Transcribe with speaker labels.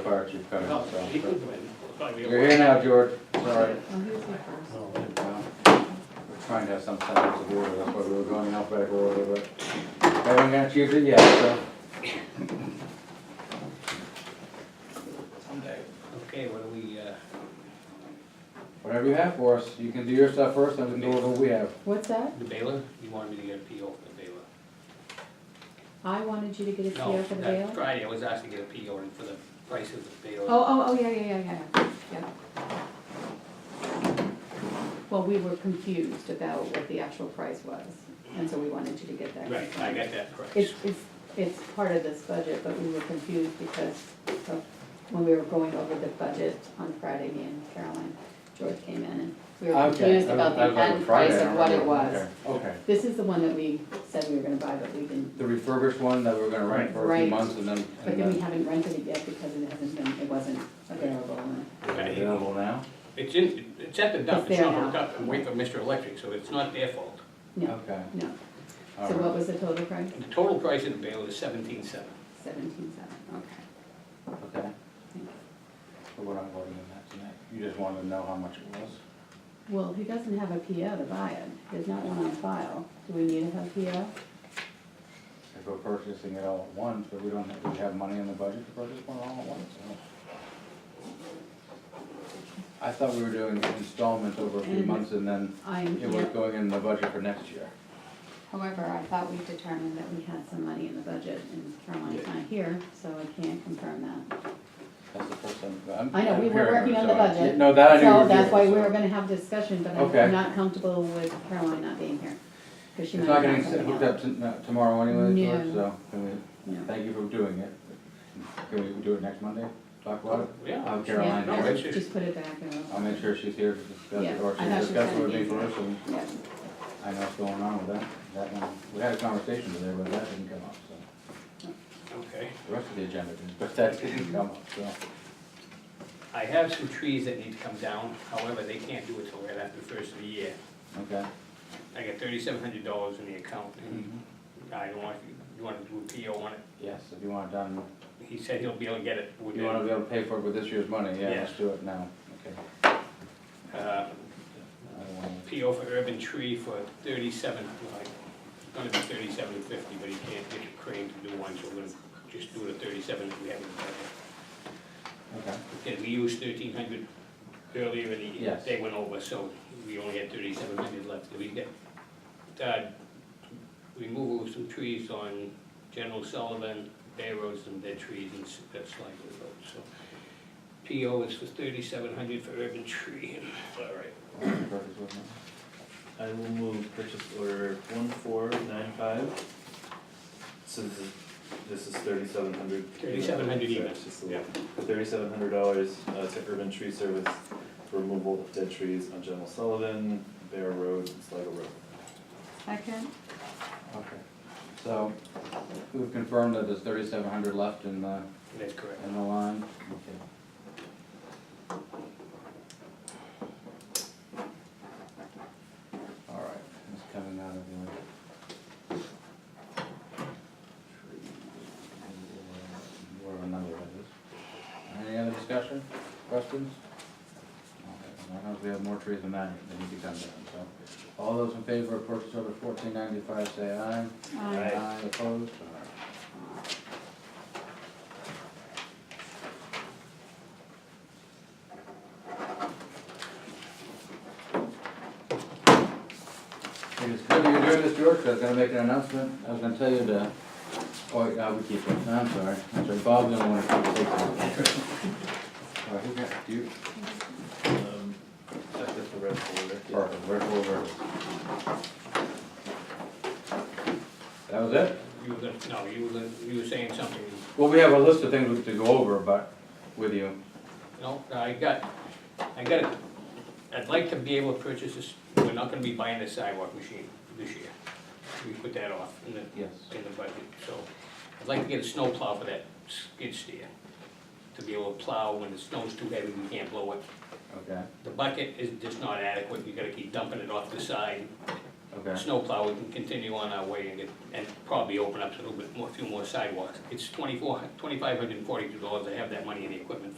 Speaker 1: far too far,
Speaker 2: No,
Speaker 1: so.
Speaker 2: Oh, he could win. Probably be a
Speaker 1: You're here now, George, sorry.
Speaker 3: Oh, here's the first.
Speaker 1: Um, We're trying to have some sense of order, that's why we were going in alphabetical order, but haven't got you to yet, so.
Speaker 2: Someday. Okay, what do we, uh,
Speaker 1: Whatever you have for us, you can do your stuff first, and we can do what we have.
Speaker 3: What's that?
Speaker 2: the baler? You wanted me to get a PO for the baler?
Speaker 3: I wanted you to get a
Speaker 2: No,
Speaker 3: PO for the
Speaker 2: that
Speaker 3: bail?
Speaker 2: Friday, I was asked to get a PO for the price of the baler.
Speaker 3: Oh, oh, oh, yeah, yeah, yeah, yeah, yeah. Well, we were confused about what the actual price was, and so we wanted you to get that.
Speaker 2: Right, I got that price.
Speaker 3: It's, it's, it's part of this budget, but we were confused because of, when we were going over the budget on Friday, me and Caroline, George came in, and we were
Speaker 1: Okay.
Speaker 3: confused
Speaker 1: I
Speaker 3: about
Speaker 1: was- I was
Speaker 3: the
Speaker 1: like,
Speaker 3: end
Speaker 1: Friday,
Speaker 3: price
Speaker 1: I
Speaker 3: of what it
Speaker 1: remember.
Speaker 3: was.
Speaker 1: Okay, Okay,
Speaker 3: This is the one that we said we were gonna buy, but we didn't,
Speaker 1: the refurbished one that we were gonna rent for a few
Speaker 3: Right.
Speaker 1: months and then,
Speaker 3: but
Speaker 1: and uh,
Speaker 3: then
Speaker 1: then.
Speaker 3: we haven't rented it yet because it hasn't been, it wasn't available. and-
Speaker 1: Is it Available now?
Speaker 2: It's in, it's at the dump,
Speaker 3: It's
Speaker 2: it's
Speaker 3: there
Speaker 2: not hooked
Speaker 3: now.
Speaker 2: up, I'm waiting for Mr. Electric, so it's not their fault.
Speaker 3: No,
Speaker 1: Okay,
Speaker 3: no.
Speaker 1: all
Speaker 3: So what
Speaker 1: right.
Speaker 3: was the total price?
Speaker 2: The total price of the baler is seventeen seven.
Speaker 3: Seventeen seven, okay.
Speaker 1: Okay, so we're not voting on that tonight. You just wanted to know how much it was?
Speaker 3: Well, he doesn't have a PO to buy it. There's not one on file. Do we need to have a PO?
Speaker 1: If we're purchasing it all at once, but we don't, have- we have money in the budget to purchase one all at once, so. I thought we were doing installments over a few
Speaker 3: And-
Speaker 1: months and then
Speaker 3: I'm,
Speaker 1: it was going in the budget for next year.
Speaker 3: However, I thought we determined that we had some money in the budget and Caroline's not here, so I can't confirm that.
Speaker 1: That's the first time. I'm-
Speaker 3: I know,
Speaker 1: I'm
Speaker 3: we were
Speaker 1: hearing
Speaker 3: working
Speaker 1: it,
Speaker 3: on the
Speaker 1: so I-
Speaker 3: budget.
Speaker 1: No, that I knew. we
Speaker 3: So that's why we
Speaker 1: doing,
Speaker 3: were
Speaker 1: so.
Speaker 3: gonna have discussion, but I'm-
Speaker 1: Okay.
Speaker 3: I'm not comfortable with Caroline not being here. Because she
Speaker 1: It's
Speaker 3: might
Speaker 1: not
Speaker 3: have
Speaker 1: gonna
Speaker 3: had
Speaker 1: get
Speaker 3: something
Speaker 1: hooked up
Speaker 3: else.
Speaker 1: to- no, tomorrow anyway, George,
Speaker 3: No.
Speaker 1: so, I mean,
Speaker 3: No.
Speaker 1: thank you for doing it. Can we do it next Monday? Talk about it? I'll
Speaker 2: Yeah.
Speaker 1: have Caroline
Speaker 2: No,
Speaker 1: here.
Speaker 2: it's just-
Speaker 3: Just put it back and.
Speaker 1: I'll make sure she's here to discuss
Speaker 3: Yeah,
Speaker 1: it, or she
Speaker 3: I thought she was
Speaker 1: discussed it with
Speaker 3: gonna
Speaker 1: me
Speaker 3: be here.
Speaker 1: first and
Speaker 3: Yeah,
Speaker 1: I know what's going on with that, that one, we had a conversation today, but that didn't come up, so,
Speaker 2: Okay.
Speaker 1: the rest of the agenda didn't, but that didn't come up, so.
Speaker 2: I have some trees that need to come down, however, they can't do it till right after the first of the year.
Speaker 1: Okay,
Speaker 2: I got thirty-seven hundred dollars in the account,
Speaker 1: Mm-hmm.
Speaker 2: and
Speaker 3: Mm-hmm.
Speaker 2: I don't want, you wanna do a PO on it?
Speaker 1: yes, if you want it done,
Speaker 2: He said he'll be able to get it
Speaker 1: if you wanna be
Speaker 2: within,
Speaker 1: able to pay for it with this year's money, yeah, let's
Speaker 2: Yeah.
Speaker 1: do it now, okay.
Speaker 2: uh,
Speaker 1: I don't wanna-
Speaker 2: PO for urban tree for thirty-seven, like, it's gonna be thirty-seven fifty, but he can't get a crane to do one, so we're gonna just do the thirty-seven that we have in the budget.
Speaker 1: Okay,
Speaker 2: Okay, we used thirteen hundred earlier in the year,
Speaker 1: Yes.
Speaker 2: they went over, so we only had thirty-seven hundred left, we get, uh, removal of some trees on General Sullivan, Bay Road, some dead trees and s- that's likely road, so. PO is for thirty-seven hundred for urban tree, all right.
Speaker 1: Wanna purchase with me?
Speaker 4: I will move purchase order one four nine five. So this is, this is thirty-seven hundred.
Speaker 2: $3,700 even, yeah.
Speaker 4: Thirty-seven hundred dollars uh, to Urban Tree Service for removal of dead trees on General Sullivan, Bear Road, and Sligo Road.
Speaker 3: second,
Speaker 1: Okay, so, we've confirmed that there's thirty-seven hundred left in the,
Speaker 2: That's correct.
Speaker 1: in the line, okay. All right, it's coming out of the. More of another one of these. Any other discussion, questions? Okay, I know we have more trees than that, that need to come down, so. All those in favor of purchase order fourteen ninety-five, say aye.
Speaker 3: um,
Speaker 4: Aye.
Speaker 1: Aye, opposed, all right. And it's good that you're doing this, George, 'cause I was gonna make an announcement, I was gonna tell you to, oh, yeah, we keep it, No, I'm sorry, I'm sorry, Bob's gonna wanna keep it. All right, who got, do you,
Speaker 4: Um, That's the red folder.
Speaker 1: perfect, where's over? That was it?
Speaker 2: You were gonna, no, you were gonna, you were saying something,
Speaker 1: Well, we have a list of things to go over, but with you.
Speaker 2: no, I got, I got, it. I'd like to be able to purchase this, we're not gonna be buying a sidewalk machine this year. We put that off in the,
Speaker 1: Yes.
Speaker 2: in the budget, so I'd like to get a snow plow for that skid steer. To be able to plow when the snow's too heavy, we can't blow it.
Speaker 1: Okay,
Speaker 2: The bucket is just not adequate, you gotta keep dumping it off the side.
Speaker 1: Okay,
Speaker 2: snowplow, we can continue on our way and get, and probably open up a little bit more, a few more sidewalks. It's twenty-four, twenty-five hundred and forty-two dollars, I have that money in the equipment